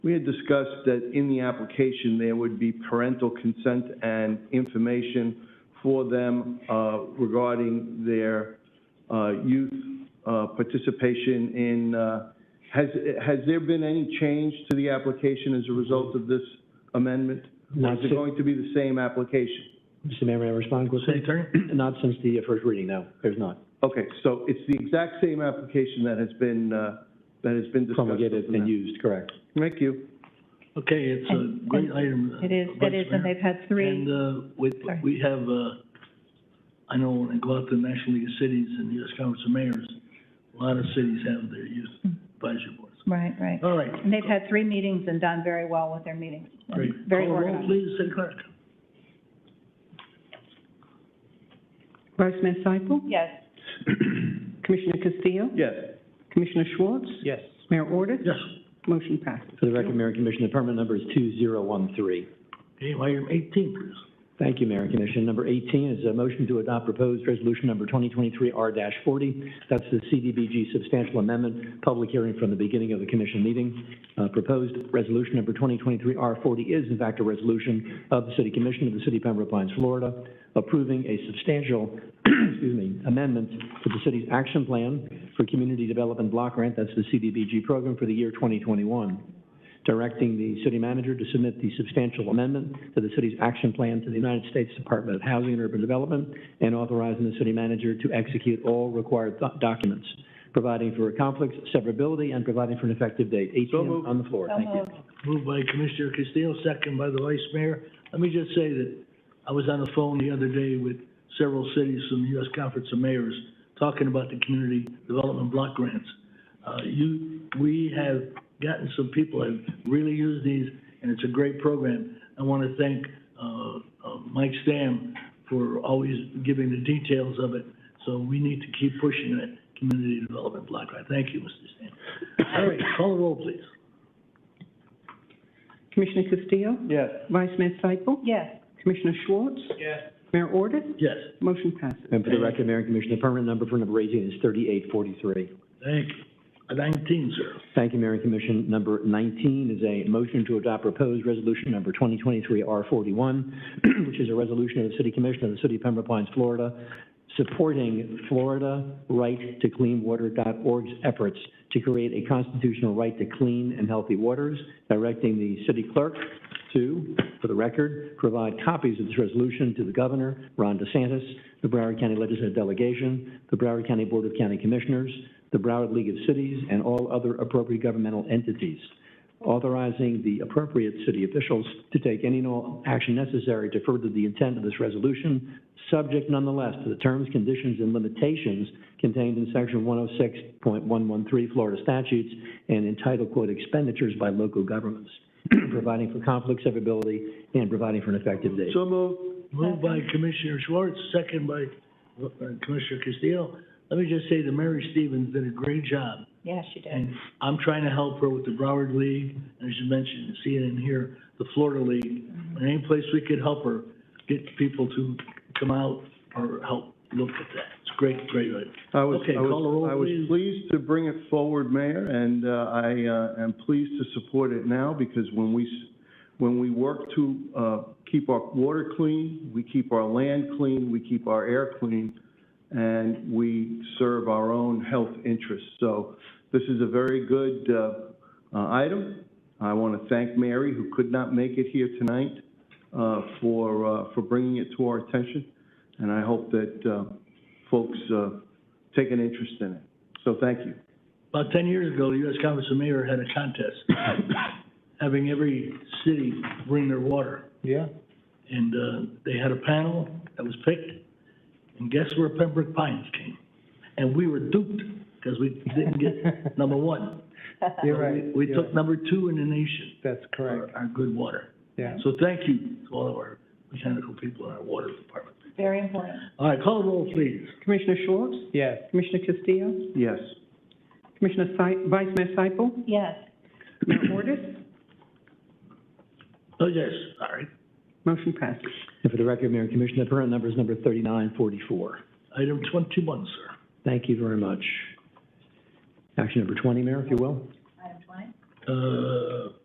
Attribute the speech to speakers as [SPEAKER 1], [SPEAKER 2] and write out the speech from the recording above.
[SPEAKER 1] We had discussed that in the application, there would be parental consent and information for them uh, regarding their uh, youth uh, participation in, uh, has, has there been any change to the application as a result of this amendment? Or
[SPEAKER 2] Not
[SPEAKER 1] is it
[SPEAKER 2] si-
[SPEAKER 1] going to be the same application?
[SPEAKER 2] Mr. Mayor, may I respond quickly?
[SPEAKER 3] City Attorney?
[SPEAKER 2] Not since the uh, first reading, no, there's not.
[SPEAKER 1] Okay, so it's the exact same application that has been, uh, that has been discussed. up
[SPEAKER 2] Promulgated
[SPEAKER 1] to now.
[SPEAKER 2] and used, correct.
[SPEAKER 1] Thank you.
[SPEAKER 3] Okay, it's a
[SPEAKER 4] And-
[SPEAKER 3] great
[SPEAKER 4] and
[SPEAKER 3] item. uh,
[SPEAKER 4] It is, it is, and they've had
[SPEAKER 3] And,
[SPEAKER 4] three,
[SPEAKER 3] uh, we,
[SPEAKER 4] Sorry.
[SPEAKER 3] we have, uh, I know when I go out to the National League of Cities and U.S. Conference of Mayors, a lot of cities have their youth
[SPEAKER 4] Hmm.
[SPEAKER 3] advisory boards.
[SPEAKER 4] right, right.
[SPEAKER 3] All right.
[SPEAKER 4] And they've had three meetings and done very well with their meetings. and
[SPEAKER 3] Great.
[SPEAKER 4] Very
[SPEAKER 3] Call the roll,
[SPEAKER 4] organized.
[SPEAKER 3] Please, City Clerk.
[SPEAKER 5] Vice Mayor Seifel?
[SPEAKER 4] Yes,
[SPEAKER 5] Commissioner Castillo?
[SPEAKER 1] Yes.
[SPEAKER 5] Commissioner Schwartz?
[SPEAKER 2] Yes.
[SPEAKER 5] Mayor Ordus?
[SPEAKER 3] Yes.
[SPEAKER 5] Motion passes.
[SPEAKER 2] For the record, Mayor and Commissioner, the permit number is 2013.
[SPEAKER 3] Okay, item eighteen, please.
[SPEAKER 2] Thank you, Mayor and Commissioner. Number 18 is a motion to adopt proposed resolution number 2023-R-40. That's the CDBG substantial amendment, public hearing from the beginning of the commission meeting. Uh, Proposed resolution number 2023-R-40 is in fact a resolution of the City Commission of the City of Pembroke Pines, Florida, approving a substantial, excuse me, amendment to the city's action plan for community development block grant, that's the CDBG program for the year 2021 directing the city manager to submit the substantial amendment to the city's action plan to the United States Department of Housing and Urban Development, and authorizing the city manager to execute all required doc- documents, providing for conflicts, severability, and providing for an effective date.
[SPEAKER 1] So
[SPEAKER 2] 18
[SPEAKER 1] moved.
[SPEAKER 2] on the floor.
[SPEAKER 4] so
[SPEAKER 2] Thank you.
[SPEAKER 4] moved.
[SPEAKER 3] Moved by Commissioner Castillo, second by the Vice Mayor. Let me just say that I was on the phone the other day with several cities from the U.S. Conference of Mayors talking about the community development block grants. Uh, you, we have gotten some people have really used these, and it's a great program. I want to thank, uh, uh, Mike Stam for always giving the details of it. So we need to keep pushing that community development block grant. Thank you, Mr. Stam. All right, call the roll, please.
[SPEAKER 5] Commissioner Castillo?
[SPEAKER 1] Yes.
[SPEAKER 5] Vice Mayor Seifel?
[SPEAKER 4] Yes,
[SPEAKER 5] Commissioner Schwartz? Yes. Mayor Ordus?
[SPEAKER 3] Yes.
[SPEAKER 5] Motion passes.
[SPEAKER 2] And for the record, Mayor and Commissioner, the permanent number for number 18 is 3843.
[SPEAKER 3] Thank you. Uh, Nineteen, sir.
[SPEAKER 2] Thank you, Mayor and Commission. Number 19 is a motion to adopt proposed resolution number 2023-R41, which is a resolution of the City Commission of the City of Pembroke Pines, Florida, supporting Florida Right to Clean Water.org's efforts to create a constitutional right to clean and healthy waters, directing the city clerk to, for the record, provide copies of this resolution to the governor, Ron DeSantis, the Broward County Legislative Delegation, the Broward County Board of County Commissioners, the Broward League of Cities, and all other appropriate governmental entities, authorizing the appropriate city officials to take any and all action necessary to further the intent of this resolution, subject nonetheless to the terms, conditions, and limitations contained in Section 106.113 Florida statutes and entitled, quote, "expenditures by local governments," providing for conflict severability and providing for an effective date.
[SPEAKER 1] So moved.
[SPEAKER 3] Moved by Commissioner Schwartz, second by uh, Commissioner Castillo. Let me just say that Mary Stevens did a great job,
[SPEAKER 4] yes, you did.
[SPEAKER 3] and I'm trying to help her with the Broward League, and as you mentioned, see it in here, the Florida League. And any place we could help her get people to come out or help look at that. It's great, great. idea.
[SPEAKER 1] I was,
[SPEAKER 3] Okay,
[SPEAKER 1] I was-
[SPEAKER 3] call the roll,
[SPEAKER 1] I was
[SPEAKER 3] please.
[SPEAKER 1] pleased to bring it forward, Mayor, and uh, I uh, am pleased to support it now because when we, s- when we work to uh, keep our water clean, we keep our land clean, we keep our air clean, and we serve our own health interests. So this is a very good uh, uh, item. I want to thank Mary, who could not make it here tonight, uh, for, uh, for bringing it to our attention, and I hope that uh, folks uh, take an interest in it. So thank you.
[SPEAKER 3] About ten years ago, the U.S. Conference of Mayor had a contest, having every city bring their water.
[SPEAKER 1] Yeah.
[SPEAKER 3] And, uh, they had a panel that was picked, and guess where Pembroke Pines came? And we were duped, because we didn't get number one.
[SPEAKER 6] You're
[SPEAKER 3] So we-
[SPEAKER 6] right.
[SPEAKER 3] We
[SPEAKER 6] You're
[SPEAKER 3] took
[SPEAKER 6] right.
[SPEAKER 3] number two in the nation
[SPEAKER 6] That's
[SPEAKER 3] for
[SPEAKER 6] correct,
[SPEAKER 3] our good water.
[SPEAKER 6] yeah.
[SPEAKER 3] So thank you to all of our mechanical people in our water department.
[SPEAKER 4] Very important.
[SPEAKER 3] All right, call the roll, please.
[SPEAKER 5] Commissioner Schwartz?
[SPEAKER 6] Yes,
[SPEAKER 5] Commissioner Castillo?
[SPEAKER 1] Yes.
[SPEAKER 5] Commissioner Se- Vice Mayor Seifel?
[SPEAKER 4] Yes,
[SPEAKER 5] Mayor Ordus?
[SPEAKER 3] Oh, yes, all right.
[SPEAKER 5] Motion passes.
[SPEAKER 2] And for the record, Mayor and Commissioner, the permanent number is number 3944.
[SPEAKER 3] Item twenty-one, sir.
[SPEAKER 2] Thank you very much. Action number 20, Mayor, if you will.
[SPEAKER 4] item twenty.
[SPEAKER 3] Uh,